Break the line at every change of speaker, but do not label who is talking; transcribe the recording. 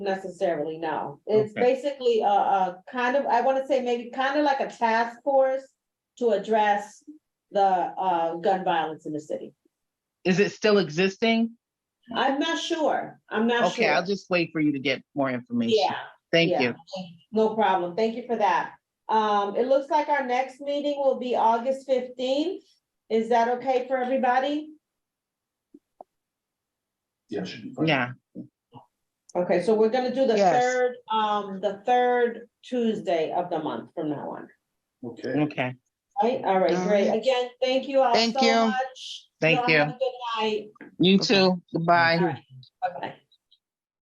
necessarily, no. It's
Okay.
basically a, a kind of, I wanna say maybe kind of like a task force to address the, uh, gun violence in the city.
Is it still existing?
I'm not sure. I'm not
Okay, I'll
sure.
just wait for you to get more information.
Yeah.
Thank
yeah.
you.
No problem. Thank you for that. Um, it looks like our next meeting will be August fifteenth. Is that okay for everybody?
Yeah, should be fine.
Yeah,
Okay, so we're gonna do the
Yes.
third, um, the third Tuesday of the month from now on,
Okay,
okay.
right? All right,
All
great.
right.
Again, thank you all so
Thank you.
much.
Thank
Y'all
you.
have a Good night.
You
Okay.
too. Goodbye.
All right, Bye-bye.